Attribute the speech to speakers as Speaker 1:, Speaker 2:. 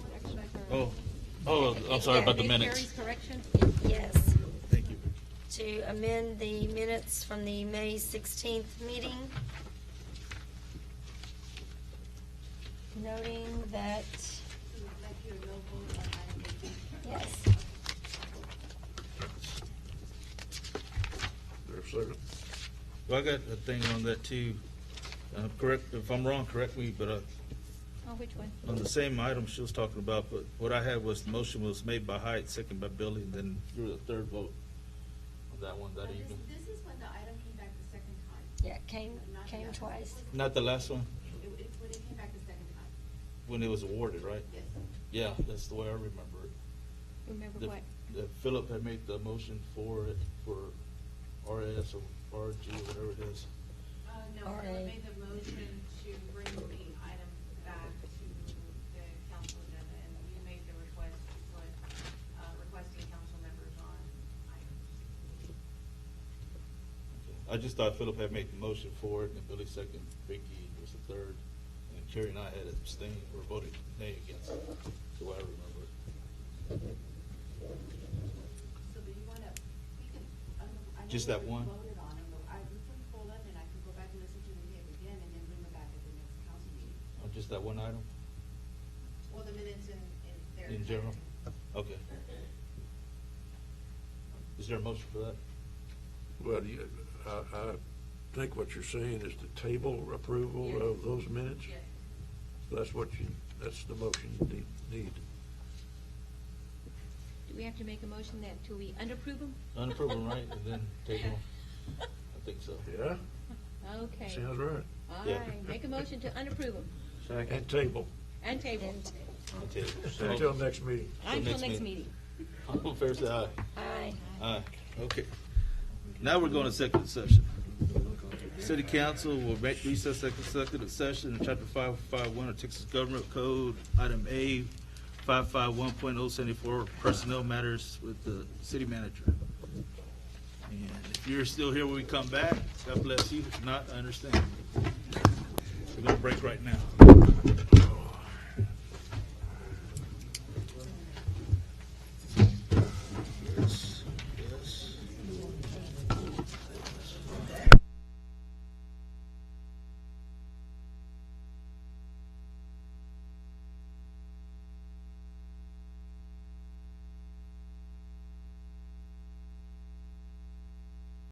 Speaker 1: Oh, oh, I'm sorry about the
Speaker 2: Read
Speaker 1: minutes.
Speaker 2: Carrie's correction?
Speaker 3: Yes,
Speaker 1: Thank you.
Speaker 3: to amend the minutes from the May 16th meeting, noting that, yes,
Speaker 4: There a second?
Speaker 1: Well, I got a thing on that too. Uh, correct, if I'm wrong, correct me, but, uh,
Speaker 2: Oh, which one?
Speaker 1: on the same item she was talking about, but what I had was, the motion was made by Height, second by Billy, and then you were the third vote on that one that
Speaker 5: Now,
Speaker 1: evening.
Speaker 5: This this is when the item came back the second time.
Speaker 3: yeah, came, came twice.
Speaker 1: Not the last one,
Speaker 5: It, it's when it came back the second time, Uh,
Speaker 1: when it was awarded, right?
Speaker 5: yes.
Speaker 1: Yeah, that's the way I remember it.
Speaker 2: Remember
Speaker 1: The-
Speaker 2: what?
Speaker 1: the Philip had made the motion for it, for RS or RG, whatever it is.
Speaker 5: Uh, no,
Speaker 3: All
Speaker 5: I
Speaker 3: right.
Speaker 5: made the motion to bring the item back to the council agenda, and you made the request to put, uh, requesting council members on items.
Speaker 1: I just thought Philip had made the motion for it, and Billy second, Vicky was the third, and Carrie and I had abstained or voted nay against it, the way I remember it.
Speaker 5: So do you wanna, we can, I don't know- I know
Speaker 1: Just
Speaker 5: we
Speaker 1: that
Speaker 5: already
Speaker 1: one?
Speaker 5: Voted on them, but I, we can pull them, and I can go back and listen to the tape again, and then bring them back at the next council meeting.
Speaker 1: Oh, Just that one item,
Speaker 5: Well, the minutes in, in their.
Speaker 1: in general? Okay. Is there a motion for that?
Speaker 4: Well, you, I, I think what you're saying is the table approval of those minutes?
Speaker 5: Yes.
Speaker 4: That's what you, that's the motion you need- need.
Speaker 2: Do we have to make a motion that, do we unapprove them?
Speaker 1: Unapprove them, right, and then table them? I think so.
Speaker 4: Yeah,
Speaker 2: Okay.
Speaker 4: sounds right.
Speaker 2: All
Speaker 1: Yeah.
Speaker 2: right, make a motion to unapprove them
Speaker 4: And table
Speaker 2: and table
Speaker 1: I'll table.
Speaker 4: until next meeting.
Speaker 2: until next meeting.
Speaker 1: All fair side, aye.
Speaker 3: Aye.
Speaker 1: Aye. Okay. Now we're going to second session. City Council will make recess second second session in chapter five five one of Texas Government Code, item A, five five one point oh seventy-four, personnel matters with the city manager. And if you're still here when we come back, God bless you. If not, I understand. We're gonna break right now.